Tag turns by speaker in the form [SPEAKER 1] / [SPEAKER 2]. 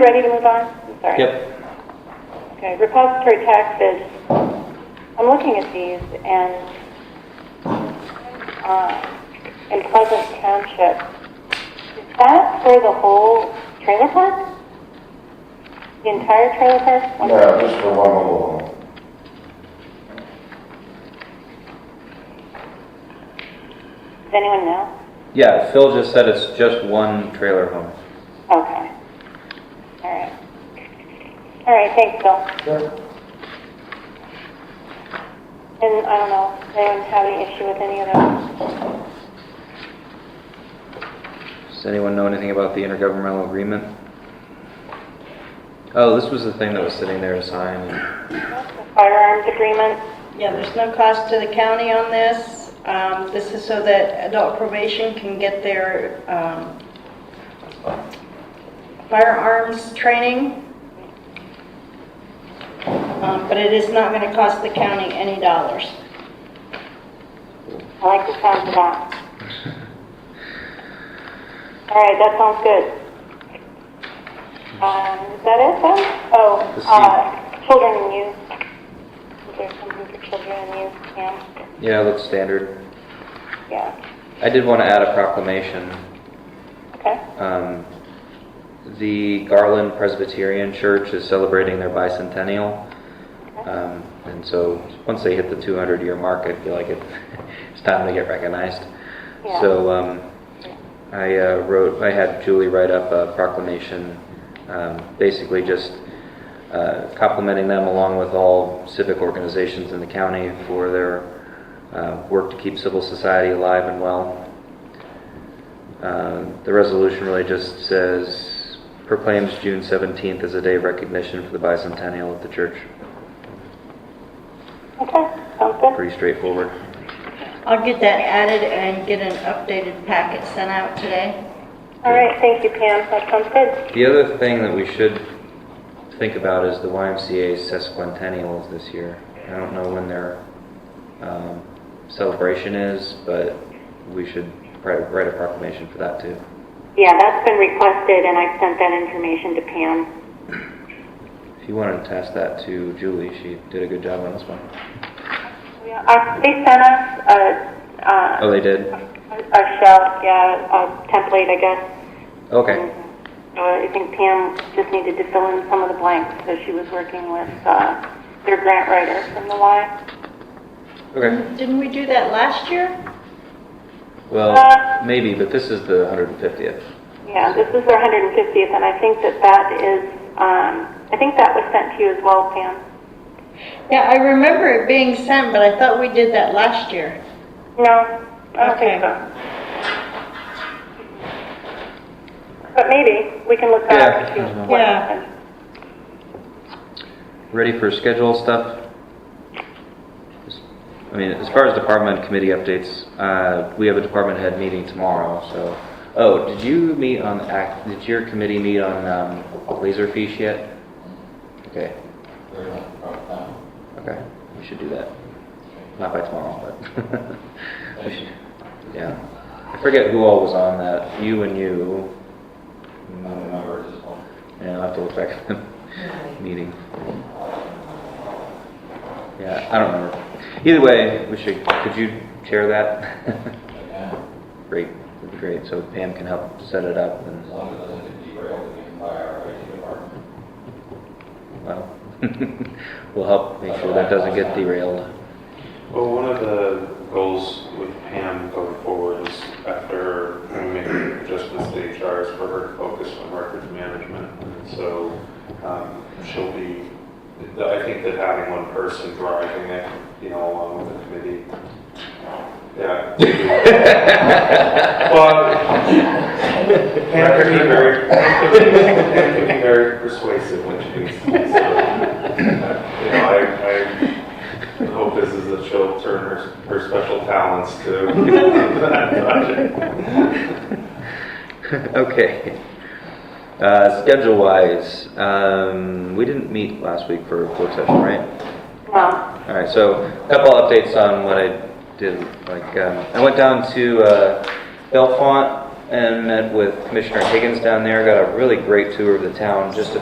[SPEAKER 1] Ready to move on? I'm sorry.
[SPEAKER 2] Yep,
[SPEAKER 1] Okay, repository taxes, I'm looking at these and, uh, in Pleasant Township, is that for the whole trailer park? The entire trailer park? One-
[SPEAKER 3] Yeah, just for one mobile home.
[SPEAKER 1] Does anyone know?
[SPEAKER 2] yeah, Phil just said it's just one trailer home.
[SPEAKER 1] Okay. All right. All right, thanks, Bill. And I don't know, does anyone have any issue with any of those?
[SPEAKER 2] Does anyone know anything about the intergovernmental agreement? Oh, this was the thing that was sitting there to sign.
[SPEAKER 1] The Firearms agreement?
[SPEAKER 4] Yeah, there's no cost to the county on this. Um, This is so that adult probation can get their um, firearms training. Um, But it is not going to cost the county any dollars.
[SPEAKER 1] I like the sound of that. All right, that sounds good. Um, is that it then? Oh,
[SPEAKER 2] The C.
[SPEAKER 1] uh, children and youth. Is there something for children and youth? Yeah,
[SPEAKER 2] Yeah, it looks standard.
[SPEAKER 1] yeah,
[SPEAKER 2] I did want to add a proclamation.
[SPEAKER 1] okay.
[SPEAKER 2] Um, The Garland Presbyterian Church is celebrating their bicentennial. Um, And so, once they hit the 200-year mark, I feel like it- it's time to get recognized.
[SPEAKER 1] Yeah.
[SPEAKER 2] So, um, I uh, wrote, I had Julie write up a proclamation, um, basically just uh, complimenting them along with all civic organizations in the county for their uh, work to keep civil society alive and well. Um, The resolution really just says, proclaims June 17th as a day of recognition for the bicentennial of the church.
[SPEAKER 1] Okay, sounds good.
[SPEAKER 2] Pretty straightforward.
[SPEAKER 4] I'll get that added and get an updated packet sent out today.
[SPEAKER 1] All right, thank you, Pam, that sounds good.
[SPEAKER 2] The other thing that we should think about is the YMCA's sesquicentennials this year. I don't know when their um, celebration is, but we should write write a proclamation for that too.
[SPEAKER 1] Yeah, that's been requested and I sent that information to Pam.
[SPEAKER 2] If you wanted to task that to Julie, she did a good job on this one.
[SPEAKER 1] Yeah, uh, they sent us a, uh,
[SPEAKER 2] Oh, they did?
[SPEAKER 1] a shell, yeah, a template, I guess.
[SPEAKER 2] Okay.
[SPEAKER 1] Uh, I think Pam just needed to fill in some of the blanks, so she was working with uh, their grant writer from the Y.
[SPEAKER 2] Okay.
[SPEAKER 4] Didn't we do that last year?
[SPEAKER 2] Well, maybe, but this is the 150th.
[SPEAKER 1] Yeah, this is their 150th, and I think that that is, um, I think that was sent to you as well, Pam.
[SPEAKER 4] Yeah, I remember it being sent, but I thought we did that last year.
[SPEAKER 1] No, I don't think
[SPEAKER 4] Okay.
[SPEAKER 1] so. But maybe, we can look
[SPEAKER 2] Yeah.
[SPEAKER 1] back and see what
[SPEAKER 4] Yeah.
[SPEAKER 1] happened.
[SPEAKER 2] Ready for schedule stuff? I mean, as far as department committee updates, uh, we have a department head meeting tomorrow, so. Oh, did you meet on, act- did your committee meet on um, Laserfish yet? Okay, okay, we should do that. Not by tomorrow, but. we should- Yeah. I forget who all was on that, you and you. Yeah, I'll have to look back at the meeting. Yeah, I don't remember. Either way, we should, could you chair that? Great, that'd be great, so Pam can help set it up and, well, we'll help make sure that doesn't get derailed.
[SPEAKER 5] Well, one of the goals with Pam going forward is after we make adjustments to HR is for her to focus on records management. And so um, she'll be, I think that having one person driving it, you know, along with the committee, yeah. Well, Pam can be very, Pam can be very persuasive when she needs to. be, so, You know, I, I the hope is, is that she'll turn her, her special talents to that project.
[SPEAKER 2] Okay. Uh, schedule-wise, um, we didn't meet last week for work session, right?
[SPEAKER 1] No,
[SPEAKER 2] All right, so a couple updates on what I did, like, um, I went down to, uh, Belfont and met with Commissioner Higgins down there, got a really great tour of the town, just a